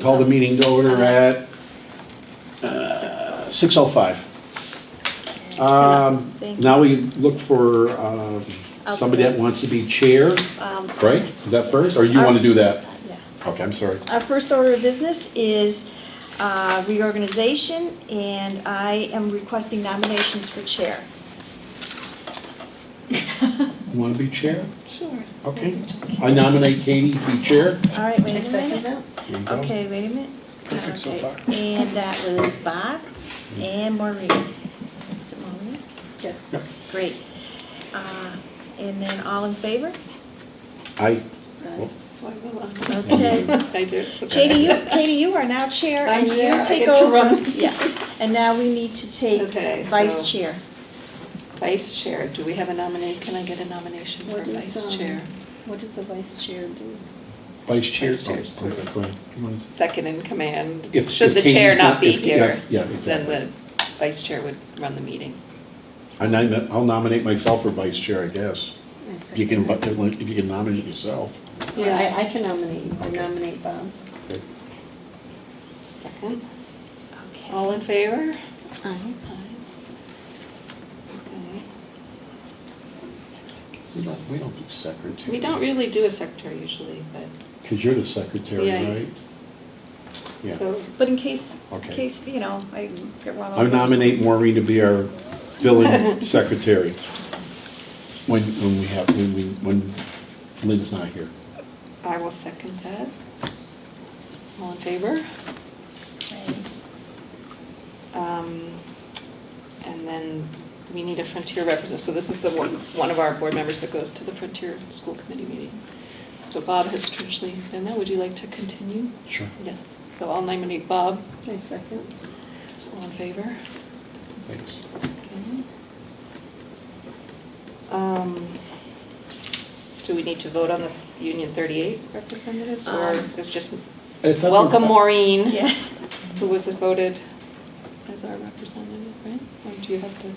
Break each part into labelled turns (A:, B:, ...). A: Call the meeting to order at six oh five. Um,
B: Thank you.
A: now we look for, um, somebody that wants to be chair,
B: Um,
A: right? Is that first, or you
B: Our-
A: want to do that?
B: yeah. Uh,
A: Okay, I'm sorry.
B: Our first order of business is uh, reorganization, and I am requesting nominations for chair.
A: You want to be chair?
B: Sure.
A: Okay. I nominate Katie to be chair.
B: All right, wait a
C: second
B: minute.
A: There you go.
B: Okay, wait a minute.
A: Perfect so
B: Okay,
A: far.
B: And that was Bob and Maureen. Is it Maureen?
C: Yes.
A: Yep.
B: Great. Uh, And then all in favor?
A: I,
B: Okay.
C: I do.
B: Katie, you, Katie, you are now chair, and
C: I'm
B: you
C: chair. I
B: take
C: get to
B: over.
C: run.
B: Yeah, and now we need to take
C: Okay, so-
B: vice chair.
C: Vice chair, do we have a nominee, can I get a nomination for
D: What is,
C: vice
D: um,
C: chair?
D: What does the vice chair do?
A: vice chair.
C: Vice chair,
A: Oh,
C: sorry.
A: okay, go ahead. You wanna-
C: Second in command,
A: If- if
C: should the chair
A: Katie's
C: not be
A: if- yeah,
C: here,
A: Yeah,
C: then
A: exactly.
C: the vice chair would run the meeting.
A: I nom- I'll nominate myself for vice chair, I guess. If you can, if you can nominate yourself.
D: Yeah, I, I can nominate, you. I
A: Okay.
D: nominate Bob.
A: Okay.
C: Second,
B: Okay.
C: all in favor?
D: Aye.
C: Aye.
A: We
C: Okay.
A: don't, we don't do secretary.
C: We don't really do a secretary usually, but,
A: Because you're the secretary,
C: Yeah.
A: right? Yeah.
C: so,
B: But in case, in
A: Okay.
B: case, you know, I get one
A: I
B: over.
A: nominate Maureen to be our filling secretary when, when we have, when we, when Lynn's not here.
C: I will second that. All in favor? Um, And then we need a Frontier representative, so this is the one, one of our board members that goes to the Frontier School Committee meetings. So Bob has traditionally been there, would you like to continue?
A: Sure.
C: Yes, so I'll nominate Bob,
D: I second.
C: all in favor?
A: Thanks.
C: Okay. Um, Do we need to vote on the Union 38 representatives, or
B: Um,
C: it's just,
A: I thought we-
C: welcome Maureen?
B: Yes.
C: Who was voted as our representative, right? Or do you have to?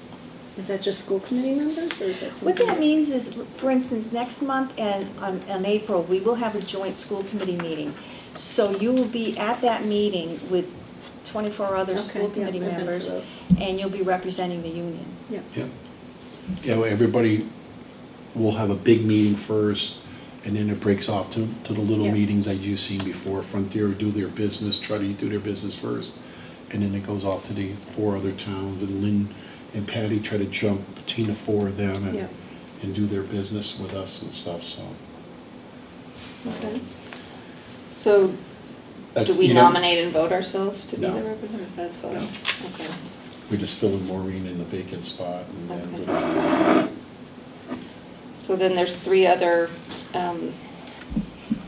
D: Is that just school committee members or is that
B: What
D: something?
B: that means is, for instance, next month and on, on April, we will have a joint school committee meeting. So you will be at that meeting with twenty-four other
D: Okay,
B: school
D: yeah,
B: committee
D: I've been to
B: members,
D: those.
B: and you'll be representing the union.
D: Yep.
A: Yeah. Yeah, well, everybody will have a big meeting first, and then it breaks off to, to the little
D: Yeah.
A: meetings that you've seen before. Frontier do their business, try to do their business first, and then it goes off to the four other towns, and Lynn and Patty try to jump between the four of them
D: Yeah.
A: and, and do their business with us and stuff, so.
C: Okay. So do
A: that's-
C: we
A: you don't-
C: nominate and vote ourselves to be
A: No.
C: the representatives? That's voting. Okay.
A: We just fill in Maureen in the vacant spot, and then,
C: Okay. So then there's three other um,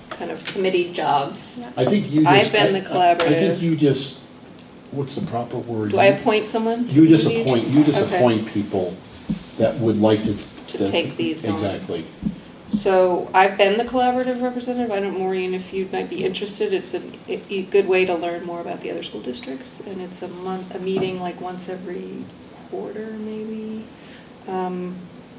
C: kind of committee jobs.
B: Yeah.
A: I think you
C: I've
A: just.
C: been the
A: I- I- I
C: collaborative.
A: think you just, what's the proper word?
C: Do I
A: You-
C: appoint someone? to
A: You
C: these?
A: just appoint, you just
C: Okay.
A: appoint people that would like to.
C: To
A: that-
C: take these on.
A: Exactly.
C: So I've been the collaborative representative. I don't, Maureen, if you might be interested, it's a, a good way to learn more about the other school districts. And it's a month, a meeting like once every quarter, maybe. Um,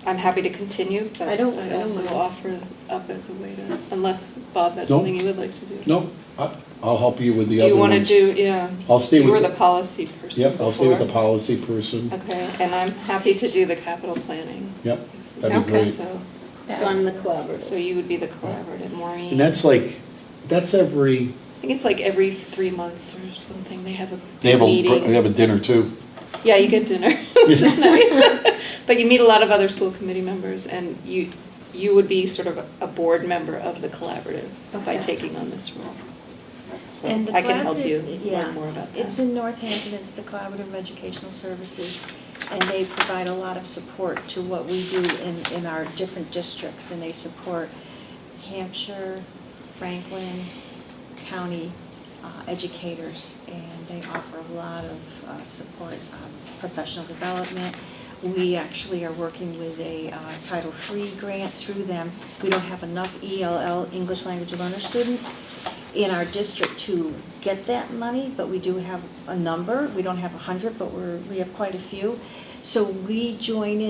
C: I'm happy to continue, but
D: I
C: I
D: don't- I don't
C: also
D: mind.
C: offer up as a way to, unless, Bob, that's
A: No.
C: something you would like to do.
A: No, I- I'll help you with
C: Do
A: the other
C: you want to
A: ones.
C: do, yeah.
A: I'll stay
C: You
A: with
C: were
A: the-
C: the policy person
A: Yep, I'll stay with the
C: before.
A: policy person.
C: Okay, and I'm happy to do the capital planning.
A: Yep, that'd be
D: Okay.
A: great.
C: So,
D: So I'm the
C: so
D: collaborative.
C: you would be the collaborative, Maureen.
A: And that's like, that's every,
C: I think it's like every three months or something, they have a
A: they have a,
C: meeting.
A: they have a dinner too.
C: Yeah, you get dinner, which is nice. But you meet a lot of other school committee members, and you, you would be sort of a board member of the collaborative by
D: Okay.
C: taking on this role. So
B: And the
C: I can help
B: collaborative-
C: you
B: yeah,
C: learn more about
B: It's
C: that.
B: in Northampton, it's the Collaborative Educational Services, and they provide a lot of support to what we do in, in our different districts, and they support Hampshire, Franklin County uh, educators, and they offer a lot of uh, support, um, professional development. We actually are working with a uh, Title III grant through them. We don't have enough ELL, English Language Learner students, in our district to get that money, but we do have a number. We don't have 100, but we're, we have quite a few. So we join in.